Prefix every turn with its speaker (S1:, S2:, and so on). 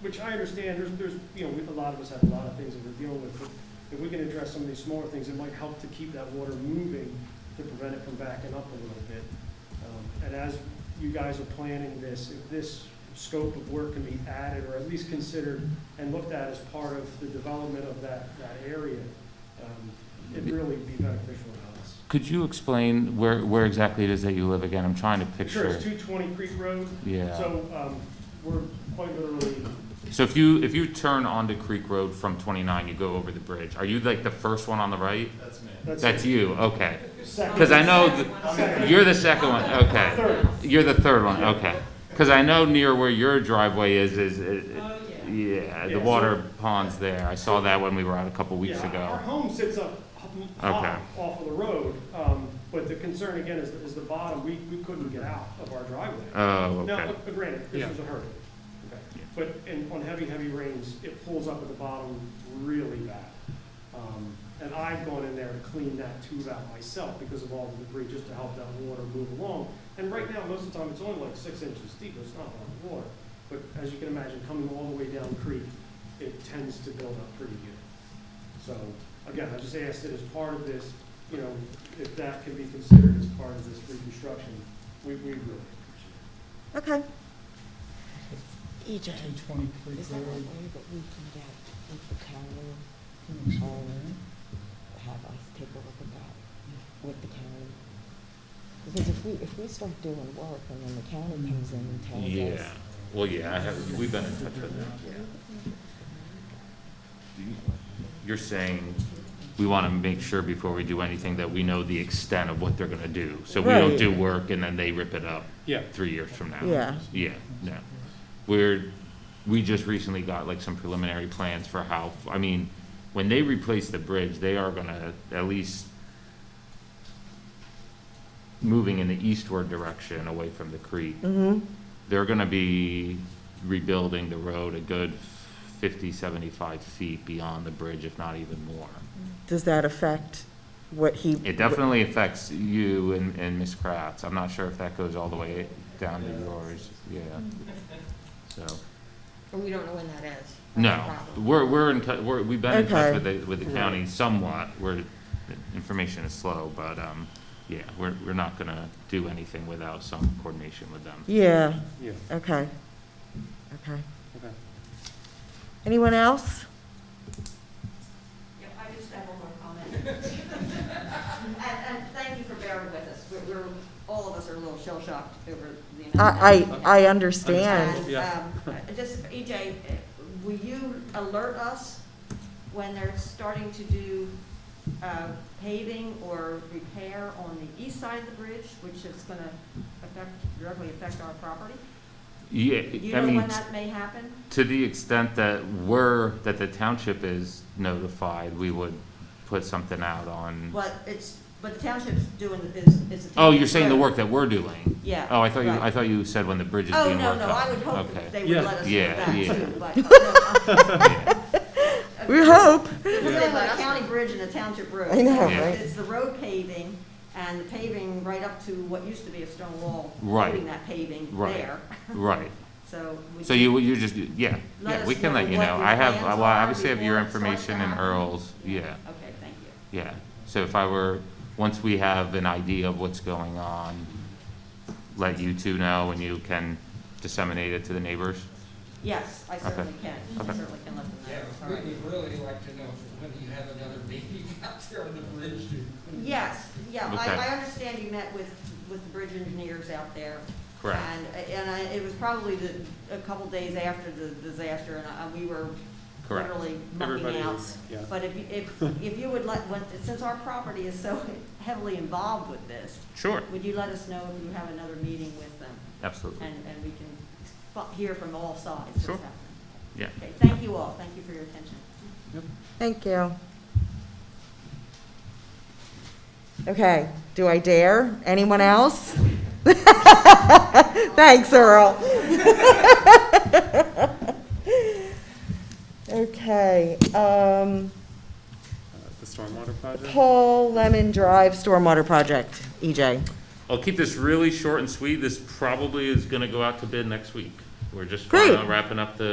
S1: which I understand, there's, there's, you know, we- a lot of us have a lot of things that we're dealing with, but if we can address some of these smaller things, it might help to keep that water moving to prevent it from backing up a little bit. Um, And as you guys are planning this, if this scope of work can be added or at least considered and looked at as part of the development of that, that area, um, it'd really be beneficial to us.
S2: Could you explain where, where exactly it is that you live again? I'm trying to
S1: Sure,
S2: picture.
S1: it's two twenty Creek Road,
S2: Yeah.
S1: so, um, we're quite literally
S2: So if you, if you turn onto Creek Road from twenty-nine, you go over the bridge. Are you like the first one on the right?
S3: That's me.
S1: That's
S2: That's you, okay.
S1: second.
S2: Because I know, th-
S1: Second.
S2: you're the second one, okay.
S1: Third.
S2: You're the third one, okay. Because I know near where your driveway is, is, is-
S4: Oh, yeah.
S2: yeah,
S1: Yeah,
S2: the
S1: so-
S2: water pond's there. I saw that when we were out a couple weeks
S1: Yeah, Our
S2: ago.
S1: home sits up high off of the road, um, but the concern again is, is the bottom, we, we couldn't get out of our driveway.
S2: Oh, okay.
S1: Now, uh, granted, this
S5: Yeah.
S1: was a hurricane, okay,
S2: Yeah.
S1: but, and on heavy, heavy rains, it pulls up at the bottom really bad. Um, And I've gone in there to clean that tube out myself because of all the debris, just to help that water move along. And right now, most of the time, it's only like six inches deep, it's not a lot of water, but as you can imagine, coming all the way down creek, it tends to build up pretty good. So, again, I just asked that as part of this, you know, if that can be considered as part of this reconstruction, we, we really appreciate it.
S6: Okay. EJ.
S5: Two twenty Creek
S4: Is that a way
S5: Road,
S4: that we can get people county,
S5: Phoenix Hall,
S6: Mm-hmm.
S4: have us take a look at that with the county? Because if we, if we start doing work and then the county comes in and tells
S2: Yeah,
S4: us.
S2: well, yeah, I have, we've been in touch with them. You're saying we want to make sure before we do anything that we know the extent of what they're going to do. So we don't
S4: Right.
S2: do work and then they rip it up
S5: Yeah.
S2: three years from now.
S4: Yeah.
S2: Yeah, no. We're, we just recently got like some preliminary plans for how, I mean, when they replace the bridge, they are gonna at least moving in the eastward direction away from the creek.
S6: Mm-hmm.
S2: They're gonna be rebuilding the road a good 50, 75 feet beyond the bridge, if not even more.
S6: Does that affect what he?
S2: It definitely affects you and, and Ms. Kratz. I'm not sure if that goes all the way down to yours, yeah. So.
S7: And we don't know when that is. That's the
S2: No,
S7: problem.
S2: we're, we're in, tou- we're, we've been in touch
S6: Okay.
S2: with the, with the county somewhat, where the information is slow, but, um, yeah, we're, we're not gonna do anything without some coordination with them.
S6: Yeah,
S5: Yeah.
S6: okay, okay.
S5: Okay.
S6: Anyone else?
S7: Yeah, I just have one more comment. And, and thank you for bearing with us. We're, we're, all of us are a little shell shocked over the. amount of
S6: I,
S7: time.
S6: I, I understand.
S7: And, um, I- just, EJ, uh, will you alert us when they're starting to do, uh, paving or repair on the east side of the bridge, which is gonna affect, directly affect our property? You
S2: Yeah, I
S7: know
S2: mean,
S7: when that may happen?
S2: to the extent that we're, that the township is notified, we would put something out on,
S7: Well, it's, but the township's doing, the- is, is. the
S2: oh, you're saying the
S7: township-
S2: work that we're doing?
S7: Yeah.
S2: Oh, I thought you,
S7: right.
S2: I thought you said when the bridge is
S7: Oh,
S2: being
S7: no,
S2: worked on.
S7: no, I would hope
S2: Okay.
S7: that they would
S5: Yeah.
S7: let us
S2: Yeah,
S7: know that
S2: yeah.
S7: too, but. no, I-
S6: We hope,
S7: We're dealing with a county bridge and a township road.
S6: I know,
S2: Yeah.
S6: right?
S7: It's the road paving and the paving right up to what used to be a stone wall.
S2: Right.
S7: Putting that paving
S2: Right.
S7: there,
S2: Right,
S7: so. we-
S2: so you, you just, yeah,
S7: Let
S2: yeah,
S7: us
S2: we can
S7: know
S2: let you
S7: what
S2: know,
S7: your
S2: I have,
S7: plans
S2: well,
S7: are
S2: I obviously have your
S7: before it starts
S2: information
S7: to
S2: and
S7: happen.
S2: Earl's, yeah.
S7: Okay, thank you.
S2: Yeah, so if I were, once we have an idea of what's going on, let you two know and you can disseminate it to the neighbors?
S7: Yes, I certainly can, I
S2: Okay.
S7: certainly can let them
S3: Yeah,
S7: know. All
S3: we
S7: right.
S3: would really like to know when you have another meeting out there on the bridge.
S7: Yes, yeah,
S2: Okay.
S7: I, I understand you met with, with the bridge engineers out there.
S2: Correct.
S7: And, and I, it was probably the, a couple days after the disaster, and I, we were
S2: Correct.
S7: literally
S5: Everybody
S7: mucking out.
S5: was, yeah. uh,
S7: But if, you- if, if you would let, when- since our property is so heavily involved with this,
S2: Sure.
S7: would you let us know if you have another meeting with them?
S2: Absolutely,
S7: And, and we can fu- hear from all sides what's
S2: Sure.
S7: happening.
S2: yeah.
S7: Okay, thank you all, thank you for your attention.
S6: Thank you. Okay, do I dare? Anyone else? Thanks, Earl. Okay, um,
S5: The stormwater project?
S6: Paul Lemon Drive Stormwater Project, E EJ.
S2: I'll keep this really short and sweet, this probably is gonna go out to bid next week. We're just
S6: Great.
S2: wrapping up the